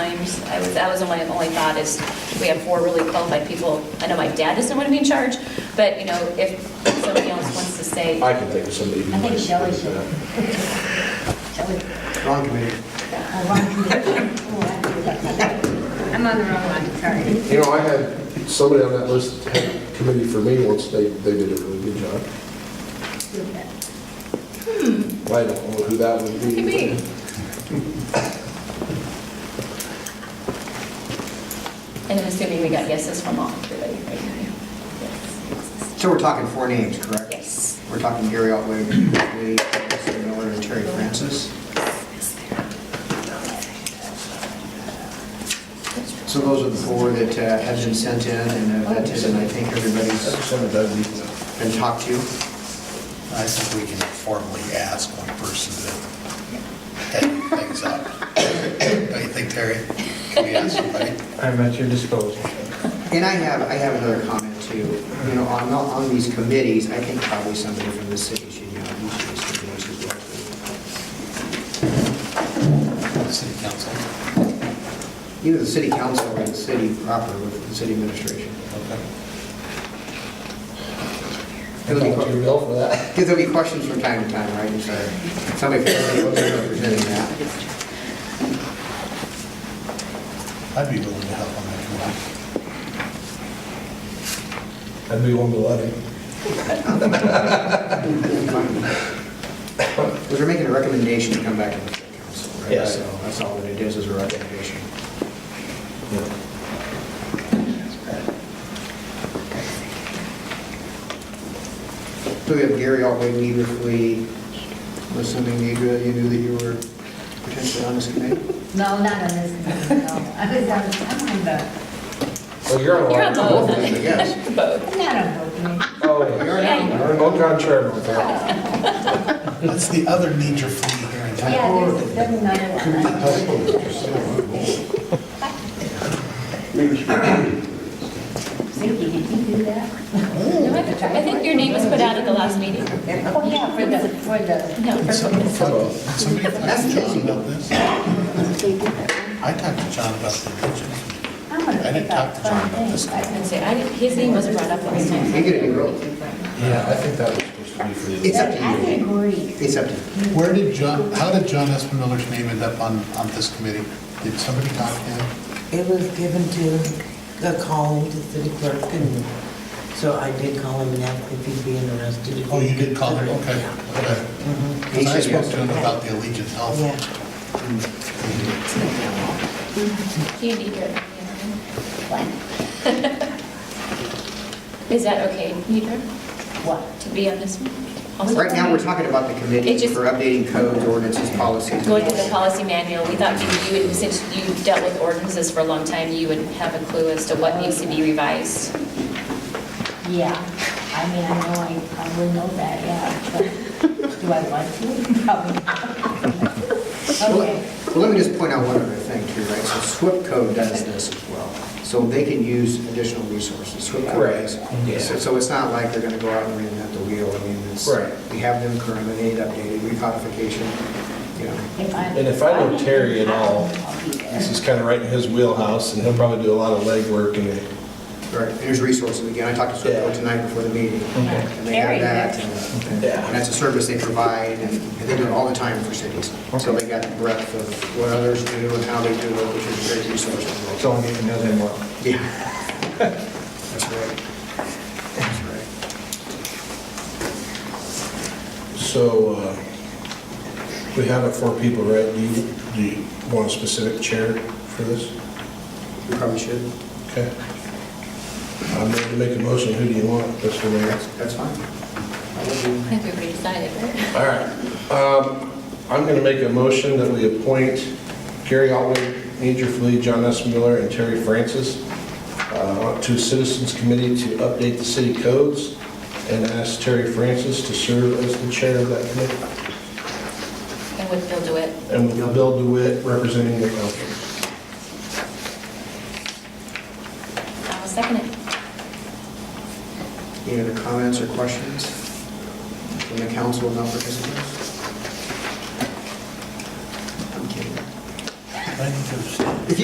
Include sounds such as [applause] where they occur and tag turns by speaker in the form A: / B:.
A: times. I was, that was my only thought is, we have four really qualified people. I know my dad doesn't want to be in charge, but, you know, if somebody else wants to say,
B: I can think of somebody. who
C: I think
B: might
C: Shelley
B: do
C: should.
B: that.
C: [laughs] Shelley.
D: Wrong committee.
C: Oh, wrong. Oh,
E: I'm on the wrong one, sorry.
B: You know, I had somebody on that list had committee for me once, they, they did a really good job.
C: I- Hmm.
B: I don't know who that would be.
A: Maybe. and I'm assuming we got yeses from all everybody, right?
D: So we're talking four names, correct?
A: Yes.
D: We're talking Gary Otway, Lee Anderson Miller, and Terry Francis. So those are the four that uh, have been sent in, and uh, that is, and I think everybody's
B: Some of those.
D: been talked to.
F: I think we can formally ask one person to head things up. Don't you think, Terry? Can we ask somebody?
G: I'm at your disposal.
D: And I have, I have another comment too. You know, on, on these committees, I think probably somebody from the city should, you know, each of these committees as well.
F: City council?
D: Either the city council or the city proper with the city administration.
F: Okay.
B: I talked to Bill for that.
D: Because there'll be questions from time to time, right? And so somebody from the city will be representing that.
F: I'd be willing to help on that committee.
B: I'd be willing to let him.
D: Because we're making a recommendation to come back to the council,
B: Yeah.
D: right? So that's all that it is, is a recommendation. So we have Gary Altway, Weaverly, I'm assuming Deidre, you knew that you were potentially on this committee?
C: No, not on this, committee, no. I was on, I'm on the,
B: Well, Oh, you're on.
A: You're on
B: both.
A: both.
D: I guess.
A: [laughs] Both.
C: I'm not on both committees.
B: Oh, you're
A: Yeah, you
B: on both on chairman.
F: That's the other major flea here in town.
C: Yeah, there's, there's another one. Vicki, did you do that?
F: Oh.
A: No, I think- I think your name was put out at the last meeting.
C: Oh, yeah, for the, for the,
A: No, for-
F: Somebody talked somebody talked to John about this? I talked to John about the region.
C: I'm gonna
F: I didn't
C: pick up
F: talk to John
C: fun
F: about this.
C: things. I
A: I'd
C: can-
A: say, I didn't- his name wasn't brought up last time.
D: You get a new role.
B: Yeah, I think that was supposed to be for
D: It's up
C: I
D: to you.
C: agree.
D: It's up to you.
F: Where did John, how did John Espinoler's name end up on, on this committee? Did somebody talk to him?
H: It was given to, a call to the city clerk, and so I did call him and ask if he'd be interested. if
F: Oh, you
H: he
F: did call her,
H: could-
F: okay, okay.
H: Mhm.
D: He
F: Because I
D: said
F: spoke
D: yes.
F: to him about the Allegiant Health.
H: Yeah.
A: You need your, you know, Is that okay, Deidre,
C: What?
A: to be on this one? Also- um,
D: Right now, we're talking about the committee
A: It just-
D: for updating codes, ordinances, policies.
A: Going through the policy manual, we thought you, you would- since you dealt with ordinances for a long time, you would have a clue as to what needs to be revised.
C: Yeah, I mean, I know, I probably know that, yeah, but do I want to? Probably not.
D: Well,
C: Okay.
D: well, let me just point out one other thing too, right? So SWIP code does this as well. So they can use additional resources. SWIP code
B: Correct.
D: is.
B: Yeah.
D: So- So it's not like they're going to go out and reinvent the wheel. I mean, it's,
B: Right.
D: we have them current, they need updated, recodification, you know.
C: If I-
B: And if I know Terry at all,
C: I'll be there.
B: This is kind of right in his wheelhouse, and he'll probably do a lot of legwork and
D: Right, and there's resources, again, I talked to
B: Yeah.
D: Swift tonight before the meeting, and they
C: Very
D: have
C: good.
D: that, and
B: Yeah.
D: and that's a service they provide, and and they do it all the time for cities. So they got the breadth of what others do and how they do it, which is a great resource as
G: So
D: well.
G: I need to know them well.
D: Yeah. That's right. That's right.
B: So uh, we have it for people, right? Do you, do you want a specific chair for this?
D: We probably should.
B: Okay. I'm ready to make a motion. Who do you want, Mr. Mayor?
D: That's, that's fine. That
A: I
D: would be-
A: think we've already decided, right?
B: All right. Um, I'm going to make a motion that we appoint Gary Otway, Major Flea, John S. Miller, and Terry Francis uh, to Citizens Committee to update the city codes and ask Terry Francis to serve as the chair of that committee.
A: And would Bill do it?
B: And with Bill DeWitt representing the council.
A: I'll second it.
D: Any other comments or questions from the council about participants? I'm kidding.
F: I need to understand.